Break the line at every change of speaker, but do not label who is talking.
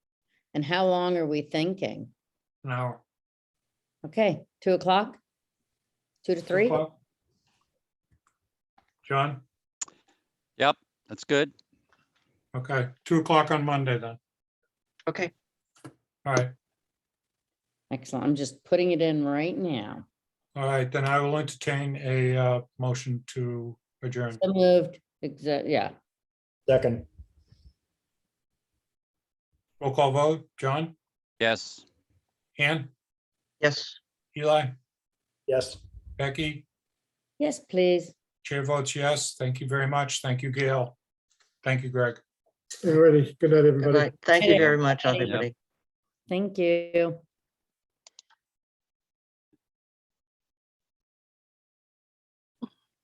And how long are we thinking?
an hour.
Okay, two o'clock? Two to three?
o'clock. John,
Yep, that's good.
okay, two o'clock on Monday then.
Okay,
All right,
Excellent. I'm just putting it in right now.
all right, then I will entertain a uh, motion to adjourn.
So moved, exa- yeah,
Second,
Roll call vote, John,
Yes.
Ann,
yes.
Eli,
yes.
Becky,
yes, please.
chair votes yes. Thank you very much. Thank you, Gail. Thank you, Greg.
Alrighty, good night,
Good
everybody.
night. Thank you
Yeah.
very much,
Thank you.
everybody.
Thank you.